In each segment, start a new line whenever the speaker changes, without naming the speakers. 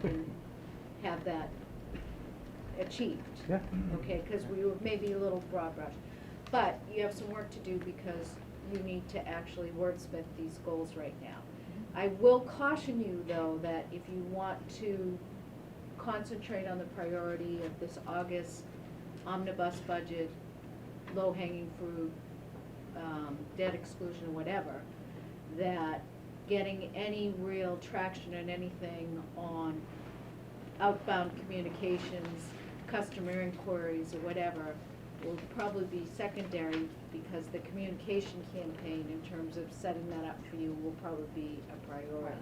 can have that achieved.
Yeah.
Okay, because we were maybe a little broad brush. But you have some work to do because you need to actually wordsmith these goals right now. I will caution you, though, that if you want to concentrate on the priority of this August omnibus budget, low-hanging fruit, um, debt exclusion or whatever, that getting any real traction in anything on outbound communications, customer inquiries or whatever, will probably be secondary because the communication campaign in terms of setting that up for you will probably be a priority.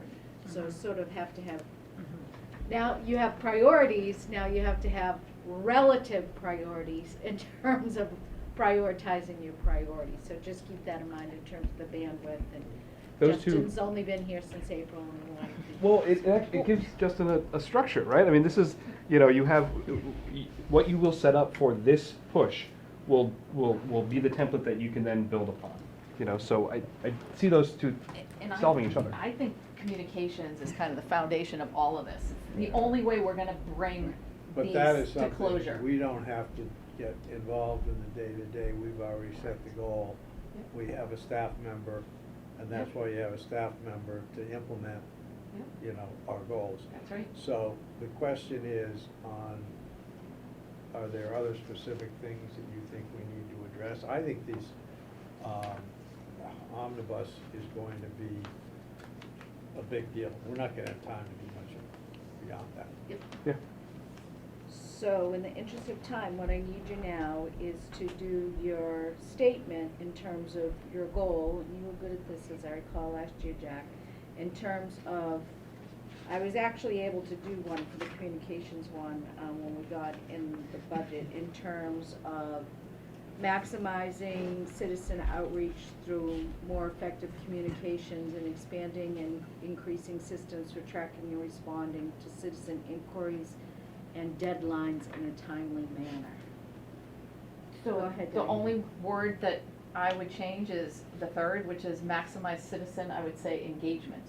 So
Mhm.
sort of have to have
Mm-hmm.
now you have priorities, now you have to have relative priorities in terms of prioritizing your priorities. So just keep that in mind in terms of the bandwidth and
Those two-
Justin's only been here since April and we want to keep-
Well, it, it, act- it gives Justin a, a structure, right? I mean, this is, you know, you have, what you will set up for this push will, will, will be the template that you can then build upon. You know, so I, I see those two
And I-
solving each other.
I think communications is kind of the foundation of all of this. It's The only way we're gonna bring
But
these
that is
to
something,
closure.
we don't have to get involved in the day-to-day, we've already set the goal.
Yep.
We have a staff member, and that's
Yep.
why you have a staff member to implement,
Yep.
you know, our goals.
That's right.
So the question is on, are there other specific things that you think we need to address? I think these, um, omnibus is going to be a big deal. We're not gonna have time to do much of- beyond that.
Yep.
Yeah.
So in the interest of time, what I need you now is to do your statement in terms of your goal, and you were good at this, as I recall last year, Jack, in terms of, I was actually able to do one for the communications one, um, when we got in the budget, in terms of maximizing citizen outreach through more effective communications and expanding and increasing systems for tracking and responding to citizen inquiries and deadlines in a timely manner. Go
So
ahead,
the
Diane.
only word that I would change is the third, which is maximize citizen, I would say engagement.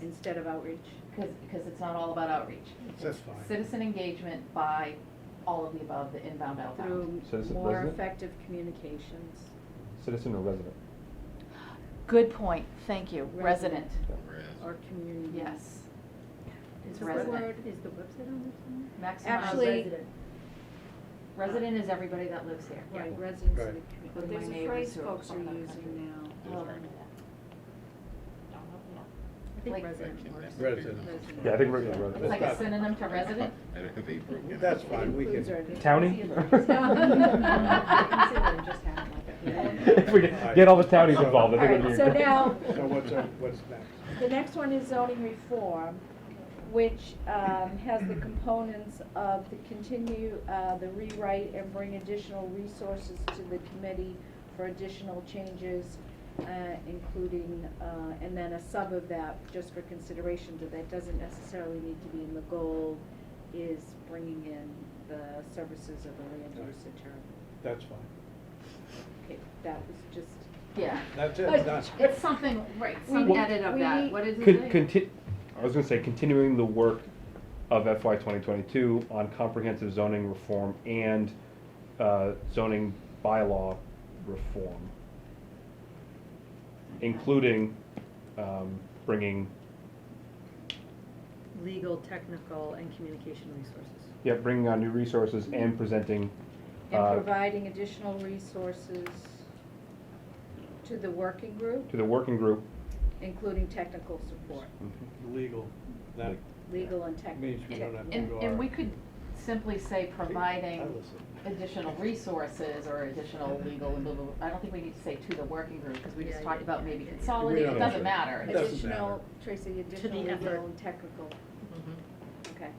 Instead of outreach.
Because, because it's not all about outreach.
That's fine.
Citizen engagement by all of the above, the inbound, outbound.
Through
Citizen
more
resident?
effective communications.
Citizen or resident?
Good point, thank you,
Resident.
resident,
Or community.
yes. It's
Is the
resident.
word, is the website on this one?
Actually-
Maximize,
Resident.
resident is everybody that lives here.
Right, residents of the
Right.
community.
But
But
my
there's a
neighbors
phrase
who are
folks are
from other
using now.
Well,
Those are-
don't know, yeah.
I
Like-
think resident works.
Resident.
Resident.
Yeah, I think resident,
It's like
resident.
a synonym to resident?
I don't think they've broken it.
That's fine. we
Includes
can-
our neighbors.
Townie?
Consider it just having like a-
If we get get all the townies involved, I think it would be.
Alright, so now,
So what's, our- what's next?
The next one is zoning reform, which um, has the components of the continue, uh, the rewrite and bring additional resources to the committee for additional changes, uh, including, uh, and then a sub of that, just for consideration, but that doesn't necessarily need to be in the goal, is bringing in the services of a land use attorney.
That's fine.
Okay, that was just.
Yeah.
That's
But
it, that's.
It's something, right,
We-
some
Well-
edit of
we-
that, what is it?
Con-
say?
conti- I was gonna say, continuing the work of FY twenty twenty-two on comprehensive zoning reform and, uh, zoning bylaw reform. Including, um, bringing,
Legal, technical, and communication resources.
yeah, bringing on new resources and presenting,
And
uh,
providing additional resources to the working group,
to the working group.
including technical support,
Legal, that
legal and technical.
means we don't have to
And,
go.
and we could simply say
our- I
providing
listen.
additional resources or additional legal and blah, blah, blah. I don't think we need to say to the working group, because we just
Yeah,
talked
yeah,
about
yeah,
maybe
yeah, yeah.
consolidate,
We
it
don't-
doesn't matter.
It doesn't
It's-
matter.
Additional, Tracy, additional
effort.
legal and technical, okay.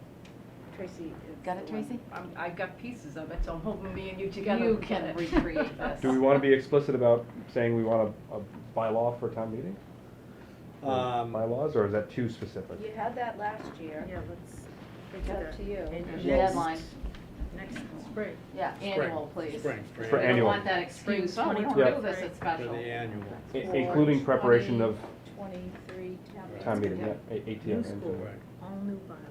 Tracy. is
Got it,
the one.
Tracy?
I'm, I've got pieces of it, so I'm hoping me and you together.
You
will
can
get it.
recreate this.
Do we wanna be explicit about saying we want a, a bylaw for town meeting?
Um,
Bylaws, or is that too specific?
You had that last year.
Yeah, let's.
It's up to you.
And
There's a
next-
Deadline,
Next spring.
yeah,
Spring,
annual, please.
Spring, spring.
For
We
annual.
don't want that excuse, oh, we don't
Yeah.
do this, it's special.
For the annual.
I-
For
Including preparation of
2023 town meeting.
town meeting, yeah, A- ATM.
New school,
and-
Right.
all new bylaws.